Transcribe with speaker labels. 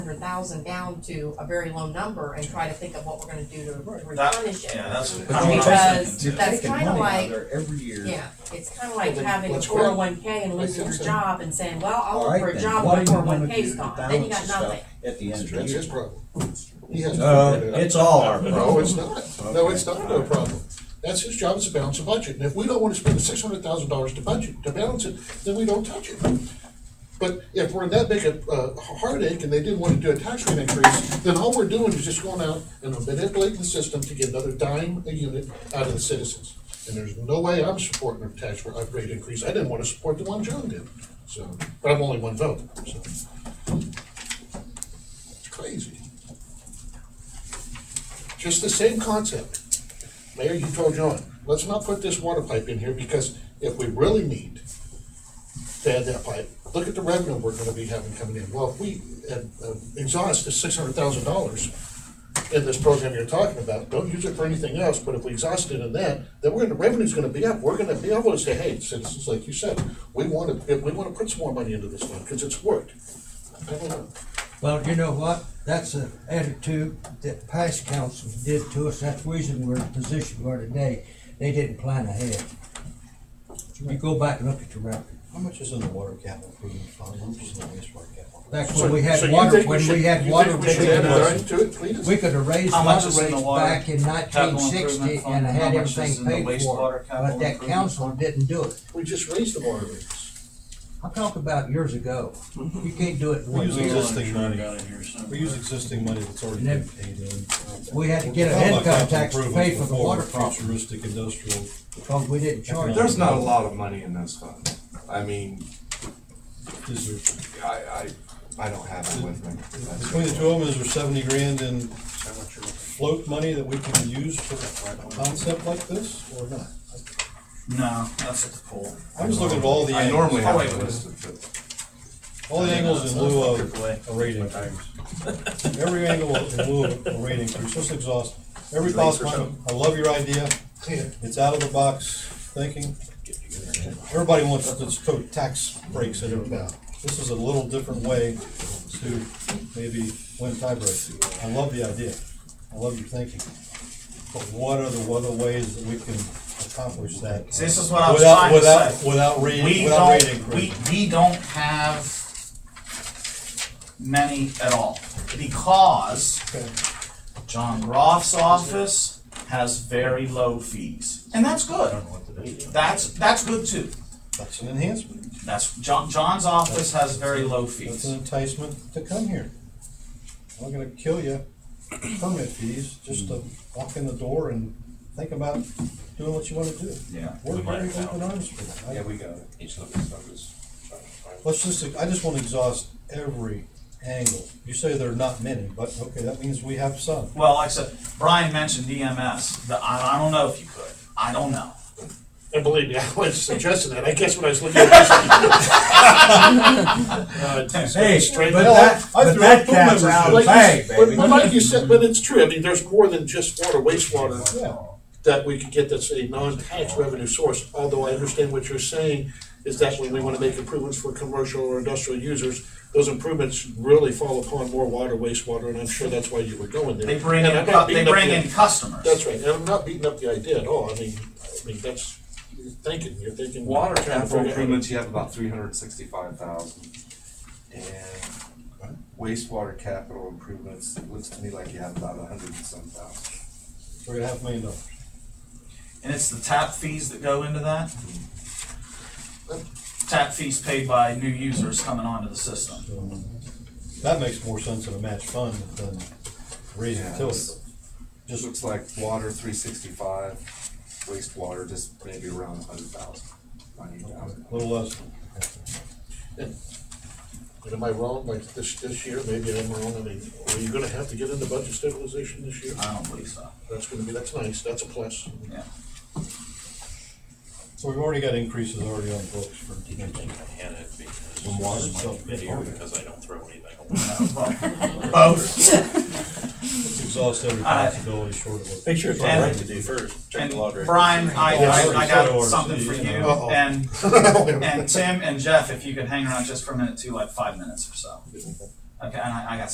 Speaker 1: hundred thousand down to a very low number and try to think of what we're gonna do to to
Speaker 2: That-
Speaker 1: replenish it.
Speaker 2: Yeah, that's.
Speaker 1: But you- Because
Speaker 3: You're
Speaker 1: that's
Speaker 3: taking
Speaker 1: kinda
Speaker 3: money out
Speaker 1: like-
Speaker 3: there Every year.
Speaker 1: Yeah, it's kinda like
Speaker 3: Well, then
Speaker 1: having a
Speaker 3: let's
Speaker 1: four oh one K and losing your
Speaker 3: Let's-
Speaker 1: job and saying, well, I'll
Speaker 3: All
Speaker 1: look
Speaker 3: right,
Speaker 1: for a
Speaker 3: then,
Speaker 1: job
Speaker 3: what
Speaker 1: when
Speaker 3: do
Speaker 1: four
Speaker 3: you
Speaker 1: oh one
Speaker 3: wanna
Speaker 1: K's
Speaker 3: do to
Speaker 1: gone, then you
Speaker 3: balance
Speaker 1: got
Speaker 3: this stuff
Speaker 1: nothing.
Speaker 3: At the end of the
Speaker 4: That's his
Speaker 3: year.
Speaker 4: problem. He has to
Speaker 5: Uh,
Speaker 4: figure it out.
Speaker 5: it's all our
Speaker 4: No,
Speaker 5: problem.
Speaker 4: it's not. No, it's not no problem. That's his job is to balance a budget. And if we don't wanna spend the six hundred thousand dollars to budget, to balance it, then we don't touch it. But if we're in that big a uh, heartache and they didn't wanna do a tax rate increase, then all we're doing is just going out and manipulating the system to get another dime a unit out of the citizens. And there's no way I'm supporting a tax rate increase. I didn't wanna support the one John did, so, but I'm only one vote, so. It's crazy. Just the same concept. Mayor, you told John, let's not put this water pipe in here because if we really need to add that pipe, look at the revenue we're gonna be having coming in. Well, if we uh, uh, exhaust the six hundred thousand dollars in this program you're talking about, don't use it for anything else, but if we exhaust it in that, then we're, the revenue's gonna be up. We're gonna be able to say, hey, citizens, like you said, we wanna, we wanna put some more money into this one, cause it's worked. I don't know.
Speaker 6: Well, you know what? That's an attitude that past councils did to us. That's the reason we're in the position we are today. They didn't plan ahead. You go back and look at your record.
Speaker 7: How much is in the water capital improvement fund, how much is in the wastewater capital?
Speaker 6: Back
Speaker 4: So-
Speaker 6: when we
Speaker 4: so
Speaker 6: had
Speaker 4: you
Speaker 6: water,
Speaker 4: think
Speaker 6: when
Speaker 4: should-
Speaker 6: we had
Speaker 4: you
Speaker 6: water,
Speaker 4: think we
Speaker 6: we
Speaker 4: should add a
Speaker 6: could
Speaker 4: line to it, Cletus?
Speaker 6: have raised
Speaker 2: How much
Speaker 6: water
Speaker 2: is in the
Speaker 6: rates
Speaker 2: water
Speaker 6: back in nineteen
Speaker 2: capital improvement
Speaker 6: sixty
Speaker 2: fund?
Speaker 6: and
Speaker 2: How
Speaker 6: had
Speaker 2: much is in
Speaker 6: everything
Speaker 2: the
Speaker 6: paid for.
Speaker 2: wastewater
Speaker 6: it,
Speaker 2: capital
Speaker 6: But that
Speaker 2: improvement
Speaker 6: council
Speaker 2: fund?
Speaker 6: didn't do it.
Speaker 4: We just raised the water rates.
Speaker 6: I talked about years ago. You can't do it in
Speaker 8: We
Speaker 6: one
Speaker 8: use
Speaker 6: year.
Speaker 8: existing money, we use existing money that's already been paid in.
Speaker 6: We had to get an
Speaker 8: Talk
Speaker 6: income
Speaker 8: about capital
Speaker 6: tax to pay
Speaker 8: improvements
Speaker 6: for the
Speaker 8: before,
Speaker 6: water problem
Speaker 8: Futuristic industrial,
Speaker 6: because we didn't charge.
Speaker 8: There's
Speaker 5: There's not a lot of money in those funds. I mean,
Speaker 8: is there,
Speaker 5: I, I, I don't have it with me.
Speaker 8: between the two of them, is there seventy grand in float money that we can use for a concept like this, or not?
Speaker 2: No, that's at the pool.
Speaker 8: I was looking at all the Oh,
Speaker 5: I normally
Speaker 8: angles,
Speaker 5: have it listed, but
Speaker 8: all the angles in lieu of a rate increase. Every angle in lieu of a rate increase, just exhaust every possible, I love your idea, it's out of the box thinking. Everybody wants to throw tax breaks at everybody. This is a little different way to maybe win tie breaks. I love the idea. I love your thinking. But what are the other ways that we can accomplish that?
Speaker 2: See, This is what I was
Speaker 8: Without-
Speaker 2: trying to
Speaker 8: without-
Speaker 2: say.
Speaker 8: Without
Speaker 2: We
Speaker 8: rating, without rating.
Speaker 2: don't, we, we don't have many at all, because John Roth's office has very low fees, and that's good. That's, that's good too.
Speaker 8: That's an enhancement.
Speaker 2: That's, John, John's office has very low
Speaker 8: That's an
Speaker 2: fees.
Speaker 8: enticement to come here. I'm gonna kill you, permit fees, just to walk in the door and think about doing what you wanna do.
Speaker 2: Yeah.
Speaker 8: We're very open arms for that. I-
Speaker 7: we got it. Each of these numbers.
Speaker 8: Let's just, I just wanna exhaust every angle. You say there are not many, but okay, that means we have some.
Speaker 2: Well, like I said, Brian mentioned DMS, The- I, I don't know if you could, I don't know.
Speaker 4: And believe me, I was suggesting that. I guess when I was looking at this. Uh, it's
Speaker 5: Hey,
Speaker 4: straight-
Speaker 5: but
Speaker 4: No,
Speaker 5: that,
Speaker 4: I- I
Speaker 5: but
Speaker 4: threw
Speaker 5: that
Speaker 4: out two
Speaker 5: cat's
Speaker 4: members.
Speaker 5: out of the
Speaker 4: Like you
Speaker 5: bag,
Speaker 4: s- but-
Speaker 5: baby.
Speaker 4: But like you said, but it's true. I mean, there's more than just water, wastewater
Speaker 8: Yeah.
Speaker 4: that we could get that's a non-tax revenue source. Although I understand what you're saying is that when we want to make improvements for commercial or industrial users, those improvements really fall upon more water, wastewater, and I'm sure that's why you were going there.
Speaker 2: They bring
Speaker 4: And
Speaker 2: in,
Speaker 4: I'm not
Speaker 2: cu- they
Speaker 4: beating up
Speaker 2: bring
Speaker 4: the-
Speaker 2: in customers.
Speaker 4: That's right, and I'm not beating up the idea at all, I mean, I mean, that's, you're thinking, you're thinking.
Speaker 5: Water
Speaker 4: trying to
Speaker 5: capital
Speaker 4: figure out-
Speaker 5: improvements, you have about three hundred and sixty-five thousand. And wastewater capital improvements, it looks to me like you have about a hundred and some thousand.
Speaker 8: We're gonna have a million dollars.
Speaker 2: And it's the tap fees that go into that? Tap fees paid by new users coming onto the system.
Speaker 8: That makes more sense in a match fund than raising
Speaker 5: Yeah.
Speaker 8: utilities.
Speaker 5: Just looks like water, three sixty-five, wastewater, just maybe around a hundred thousand, ninety thousand.
Speaker 8: A little less.
Speaker 4: And Am I wrong, like this, this year, maybe I'm wrong, I mean, are you gonna have to get into budget stabilization this year?
Speaker 2: I don't believe so.
Speaker 4: That's gonna be, that's nice, that's a plus.
Speaker 2: Yeah.
Speaker 8: So we've already got increases already on the books for next year.
Speaker 9: Hannah because
Speaker 8: From water?
Speaker 9: it's my video, because I don't throw anything away.
Speaker 2: Both.
Speaker 8: Exhaust every
Speaker 2: All right.
Speaker 8: possibility short of what.
Speaker 9: Make sure it's
Speaker 2: And-
Speaker 9: all right to do first, check
Speaker 2: And
Speaker 9: the lottery.
Speaker 2: Brian, I, I, I got
Speaker 8: Sorry,
Speaker 2: something for you,
Speaker 8: sorry. Uh-oh.
Speaker 2: and, and Tim and Jeff, if you could hang around just for a minute too, like five minutes or so. Okay, and I, I got